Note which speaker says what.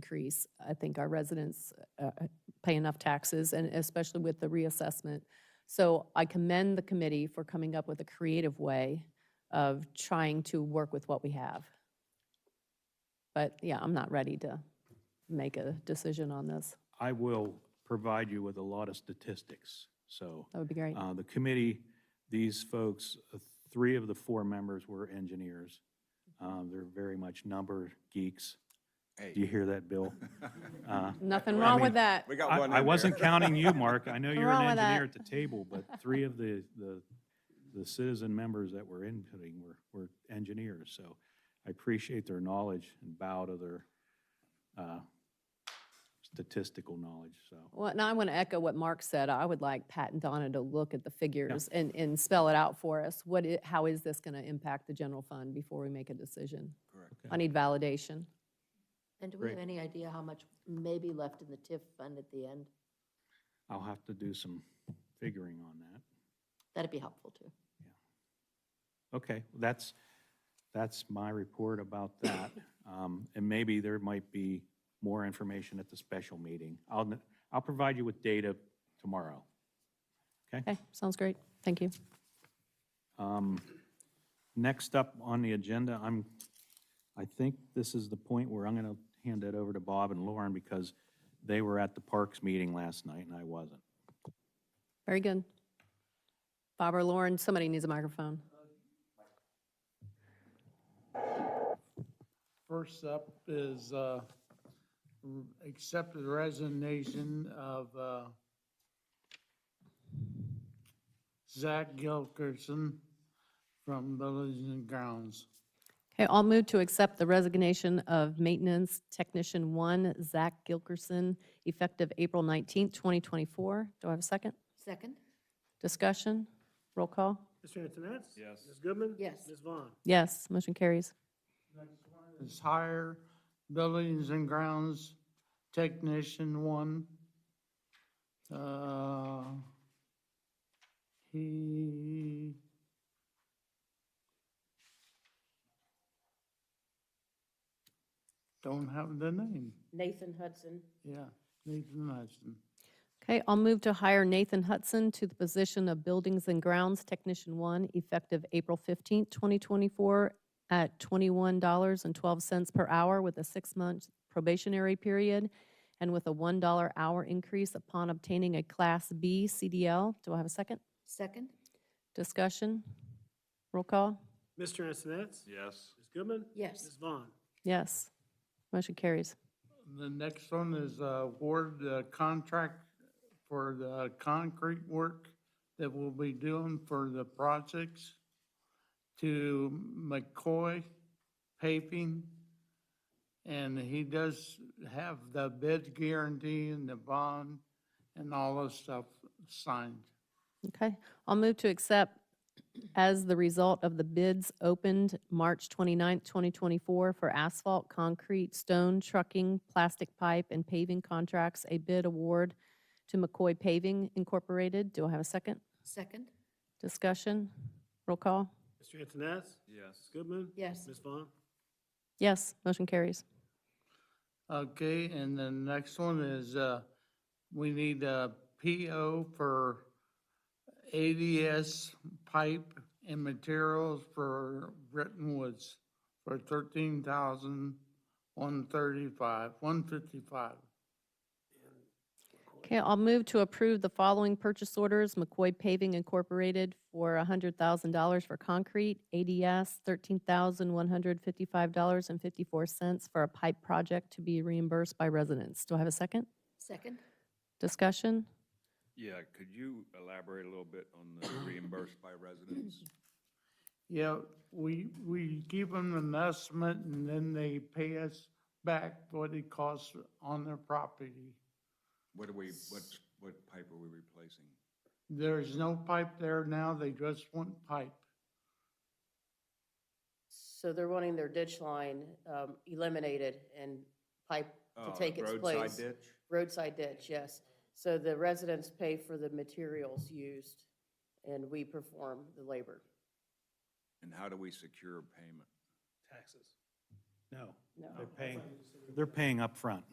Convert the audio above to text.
Speaker 1: increase. I think our residents uh, uh, pay enough taxes, and especially with the reassessment. So I commend the committee for coming up with a creative way of trying to work with what we have. But yeah, I'm not ready to make a decision on this.
Speaker 2: I will provide you with a lot of statistics. So
Speaker 1: That would be great.
Speaker 2: uh, the committee, these folks, uh, three of the four members were engineers. Um, They're very much number geeks. Do you
Speaker 3: Hey,
Speaker 2: hear that, Bill? Uh,
Speaker 1: Nothing wrong
Speaker 2: mean,
Speaker 1: with that.
Speaker 3: we got
Speaker 2: I
Speaker 3: one in
Speaker 2: I
Speaker 3: there.
Speaker 2: wasn't counting you, Mark. I know you're
Speaker 1: wrong
Speaker 2: an
Speaker 1: with that.
Speaker 2: engineer at the table, but three of the, the, the citizen members that were inputting were, were engineers. So I appreciate their knowledge and bow to their uh, statistical knowledge, so.
Speaker 1: Well, now I want to echo what Mark said. I would like Pat and Donna to look at the figures and, and spell it out for us. What, i- how is this going to impact the general fund before we make a decision?
Speaker 3: Correct.
Speaker 1: I need validation.
Speaker 4: And do we have
Speaker 2: Great.
Speaker 4: any idea how much may be left in the TIF fund at the end?
Speaker 2: I'll have to do some figuring on that.
Speaker 4: That'd be helpful too.
Speaker 2: Okay, that's, that's my report about that. Um, And maybe there might be more information at the special meeting. I'll, n- I'll provide you with data tomorrow.
Speaker 1: Okay, sounds great. Thank you.
Speaker 2: Um, Next up on the agenda, I'm, I think this is the point where I'm going to hand it over to Bob and Lauren because they were at the Parks meeting last night and I wasn't.
Speaker 1: Very good. Bob or Lauren, somebody needs a microphone.
Speaker 5: First up is uh, r- accept the resignation of uh, Zach Gilkerson from Buildings and Grounds.
Speaker 1: Okay, I'll move to accept the resignation of Maintenance Technician One, Zach Gilkerson, effective April 19th, 2024. Do I have a second?
Speaker 4: Second?
Speaker 1: Discussion? Roll call?
Speaker 6: Mr. Antoinette? Yes. Ms. Goodman?
Speaker 4: Yes.
Speaker 6: Ms. Vaughn?
Speaker 1: Yes, motion carries.
Speaker 5: Is hire Buildings and Grounds Technician One. Uh, He don't have the name.
Speaker 4: Nathan Hudson.
Speaker 5: Yeah, Nathan Hudson.
Speaker 1: Okay, I'll move to hire Nathan Hudson to the position of Buildings and Grounds Technician One, effective April 15th, 2024, at $21.12 per hour with a six-month probationary period and with a $1 hour increase upon obtaining a Class B CDL. Do I have a second?
Speaker 4: Second?
Speaker 1: Discussion? Roll call?
Speaker 6: Mr. Antoinette? Yes. Ms. Goodman?
Speaker 4: Yes.
Speaker 6: Ms. Vaughn?
Speaker 1: Yes. Motion carries.
Speaker 5: The next one is uh, award the contract for the concrete work that we'll be doing for the projects to McCoy Paving. And he does have the bid guarantee and the bond and all the stuff signed.
Speaker 1: Okay, I'll move to accept as the result of the bids opened March 29th, 2024 for asphalt, concrete, stone, trucking, plastic pipe, and paving contracts, a bid award to McCoy Paving Incorporated. Do I have a second?
Speaker 4: Second?
Speaker 1: Discussion? Roll call?
Speaker 6: Mr. Antoinette? Yes. Ms. Goodman?
Speaker 4: Yes.
Speaker 6: Ms. Vaughn?
Speaker 1: Yes, motion carries.
Speaker 5: Okay, and the next one is, uh, we need a PO for ADS pipe and materials for Britton Woods for thirteen thousand one thirty-five, one fifty-five.
Speaker 1: Okay, I'll move to approve the following purchase orders. McCoy Paving Incorporated for $100,000 for concrete, ADS $13,155.54 for a pipe project to be reimbursed by residents. Do I have a second?
Speaker 4: Second?
Speaker 1: Discussion?
Speaker 7: Yeah, could you elaborate a little bit on the reimbursed by residents?
Speaker 5: Yeah, we, we give them an estimate and then they pay us back what it costs on their property.
Speaker 7: What are we, what, what pipe are we replacing?
Speaker 5: There's no pipe there now, they just want pipe.
Speaker 8: So they're wanting their ditch line um, eliminated and pipe
Speaker 7: Uh,
Speaker 8: to take its
Speaker 7: Roadside
Speaker 8: place.
Speaker 7: ditch?
Speaker 8: Roadside ditch, yes. So the residents pay for the materials used, and we perform the labor.
Speaker 7: And how do we secure payment?
Speaker 6: Taxes.
Speaker 2: Oh. No, they're paying, they're paying up front.